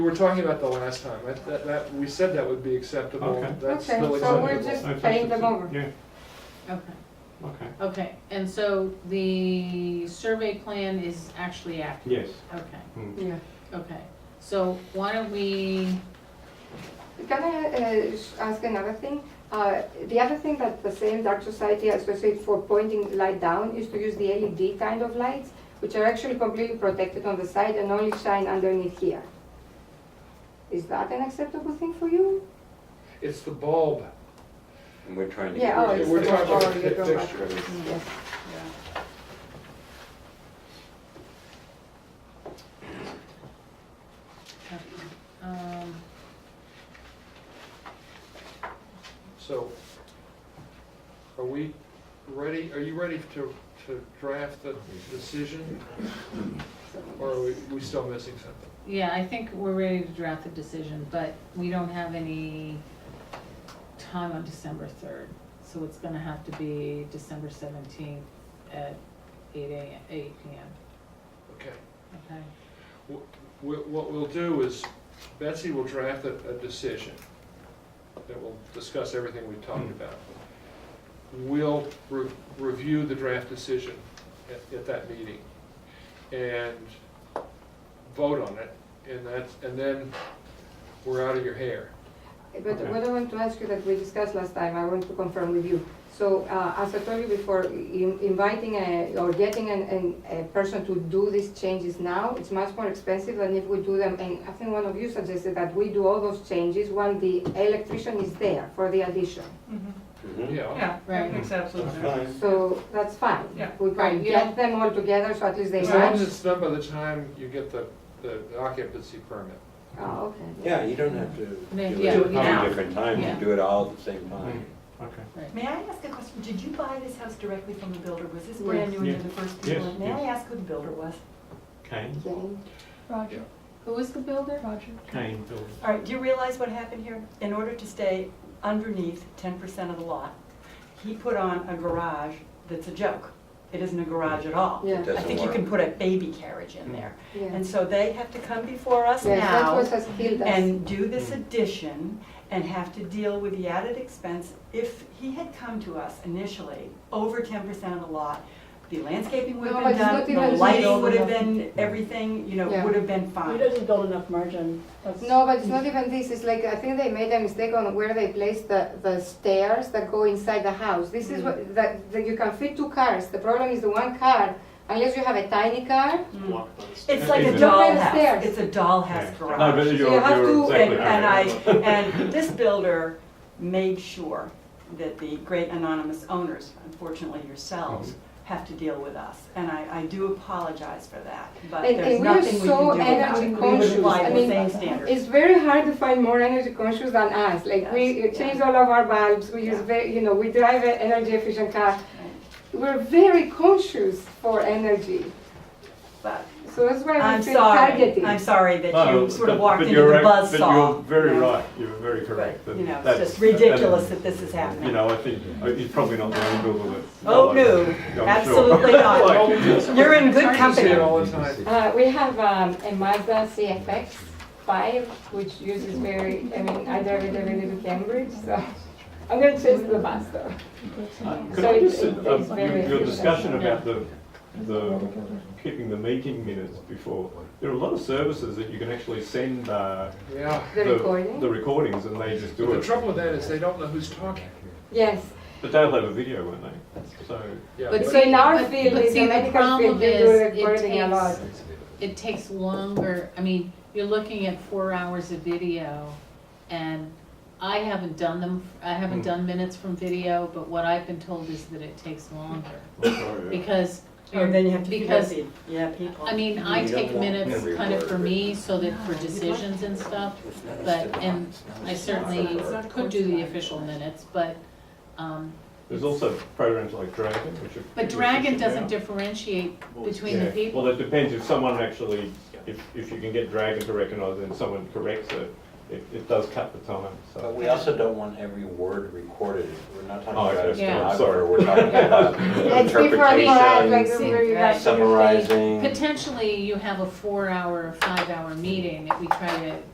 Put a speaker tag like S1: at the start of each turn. S1: We were talking about the last time, that, that, that, we said that would be acceptable,
S2: Okay.
S1: that's
S3: Okay,
S1: still
S3: so we're
S1: acceptable.
S3: just-
S2: I think
S3: paying them
S2: it's-
S3: over.
S2: Yeah,
S4: Okay,
S2: okay,
S4: okay, and so the survey plan is actually
S2: yes.
S4: accurate? Okay,
S2: Hmm.
S3: Yeah.
S4: okay, so why don't we,
S5: Can I uh, sh- ask another thing? Uh, The other thing that the same Dark Society associates for pointing light down is to use the LED kind of lights, which are actually completely protected on the side and only shine underneath here. Is that an acceptable thing for you?
S1: It's the bulb,
S6: And we're trying to get
S5: Yeah, oh,
S6: rid
S5: it's
S6: of.
S1: We're
S5: the-
S1: talking about
S5: oh, you're
S1: the
S5: talking about-
S1: fixture.
S5: Yes.
S4: um,
S1: so are we ready, are you ready to, to draft the decision? Or are we, we still missing something?
S4: um, yeah, I think we're ready to draft the decision, but we don't have any time on December third, so it's gonna have to be December seventeenth at eight a, eight P M,
S1: Okay.
S4: okay?
S1: Wh- What we'll do is Betsy will draft a, a decision that will discuss everything we talked
S2: Hmm.
S1: about. We'll re- review the draft decision at, at that meeting and vote on it. And that's, and then we're out of your hair.
S5: But
S2: Okay.
S5: what I want to ask you that we discussed last time, I want to confirm with you. So, uh, as I told you before, in- inviting a- or getting an- an- a person to do these changes now, it's much more expensive than if we do them, and I think one of you suggested that we do all those changes when the electrician is there for the addition.
S7: Mhm.
S6: Mhm.
S1: Yeah,
S7: Yeah,
S4: Right.
S7: that makes absolute sense.
S5: So that's fine.
S7: Yeah.
S5: We
S4: Right,
S5: can
S4: you
S5: get
S4: don't-
S5: them all together, so at least they
S1: as long as
S5: match.
S1: it's done by the time you get the, the occupancy permit.
S5: Oh, okay.
S6: Yeah, you don't have to do
S4: Yeah,
S6: it
S4: yeah,
S6: at
S4: yeah.
S6: many different times,
S4: Yeah.
S6: you do it all at the same time.
S2: Okay.
S8: May I ask a question? Did you buy this house directly from the builder? Was this
S5: Yes.
S8: brand new and
S2: Yeah.
S8: you're the first people?
S2: Yes,
S8: in? May I
S2: yes.
S8: ask who the builder was?
S2: Kane,
S5: Okay.
S1: Yeah.
S7: Roger,
S4: Who is the builder?
S7: Roger.
S2: Kane building.
S8: All right, do you realize what happened here? In order to stay underneath ten percent of the lot, he put on a garage that's a joke. It isn't a garage at all.
S5: Yeah. It
S6: doesn't
S8: I think you
S6: work.
S8: can put a baby carriage in there.
S5: Yeah.
S8: And so they have to come before us now.
S5: Yes, that was has killed us.
S8: and do this
S2: Mm.
S8: addition and have to deal with the added expense. If he had come to us initially, over ten percent of the lot, the landscaping would
S5: No,
S8: have
S5: but
S8: been
S5: it's
S8: done,
S5: not even
S8: the lighting
S5: legal.
S8: would have been, everything, you know,
S5: Yeah.
S8: would have been fine.
S4: build enough margin.
S5: No, but it's not even this, it's like, I think they made a mistake on where they placed the, the stairs that go inside the house. This is what, that, that you can fit two cars, the problem is the one car, unless you have a tiny car,
S8: Mm.
S2: Yeah,
S8: It's like a
S2: even-
S5: Don't play the
S8: dollhouse,
S5: stairs.
S8: it's a
S2: Yeah.
S8: dollhouse
S2: No,
S8: garage.
S2: but
S8: So
S2: you're,
S8: you have
S2: you're
S8: to-
S2: exactly
S8: and-
S2: right.
S8: And I, and this builder made sure that the great anonymous owners, unfortunately yourselves,
S2: Mm-hmm.
S8: have to deal with us. And I, I do apologize for that, but
S5: And-
S8: there's
S5: and we are
S8: nothing we
S5: so
S8: can do about
S5: energy
S8: it.
S5: conscious.
S8: We would
S5: I
S8: apply the
S5: mean,
S8: same standards.
S5: It's very hard to find more energy conscious than us, like, we
S8: Yes,
S5: change
S8: yeah.
S5: all of our bulbs, we use
S8: Yeah.
S5: very, you know, we drive an energy efficient car. We're very conscious for energy,
S8: But
S5: so that's why
S8: I'm
S5: we feel
S8: sorry,
S5: targeted.
S8: I'm sorry that
S2: No,
S8: you sort of
S2: but-
S8: walked
S2: but
S8: into the
S2: you're right-
S8: buzzsaw.
S2: But you're very
S8: you know?
S2: right, you're very correct.
S8: But,
S2: and
S8: You know, it's
S2: that's-
S8: just
S2: and,
S8: ridiculous that this is
S2: You
S8: happening.
S2: know, I think, uh, he's probably not the only builder that.
S8: Oh, no,
S2: I'm sure.
S8: absolutely not.
S2: Like-
S8: You're in good
S1: Sorry to say it
S8: company.
S1: all the time.
S5: Uh, we have um, a Mazda CFX five, which uses very, I mean, I drive it every day to Cambridge, so I'm gonna change the bus though.
S2: uh, Could
S5: So
S2: I
S5: it-
S2: just,
S5: it
S2: um,
S5: takes
S2: your,
S5: very
S2: your
S5: few
S2: discussion
S5: minutes.
S2: about the, the, keeping the meeting minutes before, there are a lot of services that you can actually send, uh,
S1: Yeah.
S5: The recording?
S2: The recordings, and they just do
S1: The
S2: it.
S1: trouble with that is they don't know who's talking.
S5: Yes,
S2: But they'll have a video, won't they? So,
S1: Yeah.
S4: But
S5: so in our
S4: but-
S5: field,
S4: but
S5: in
S4: see,
S5: the
S4: the
S5: medical
S4: problem
S5: field, we do
S4: is it
S5: recording a
S4: takes-
S5: lot.
S4: It takes longer, I mean, you're looking at four hours of video, and I haven't done them, I haven't
S2: Mm.
S4: done minutes from video, but what I've been told is that it takes longer,
S2: I'm sorry.
S4: because,
S8: And then you have to figure out
S4: because,
S8: the, yeah, people.
S4: I mean, I
S6: You don't
S4: take
S6: want
S4: minutes
S6: every
S4: kind of for
S6: word
S4: me,
S6: written.
S4: so that for
S8: No, you'd like
S4: decisions
S8: to.
S4: and stuff,
S6: Mm-hmm.
S4: but, and I certainly
S8: not a
S4: could do the
S8: coincidence.
S4: official minutes, but, um,
S2: There's also programs like Dragon, which are.
S4: but
S2: which are
S4: Dragon
S2: sitting
S4: doesn't
S2: down.
S4: differentiate between the
S2: Yeah.
S4: people.
S2: Well, it depends if someone actually, if, if you can get Dragon to recognise and someone corrects it, it, it does cut the time,
S6: But
S2: so.
S6: we also don't want every word recorded. We're not
S2: Oh,
S6: talking about a
S2: okay.
S4: Yeah.
S6: stenographer, we're talking about
S5: It's different for us, like
S6: interpretation,
S5: where you guys.
S6: summarizing.
S4: Potentially, you have a four-hour, five-hour meeting that we try to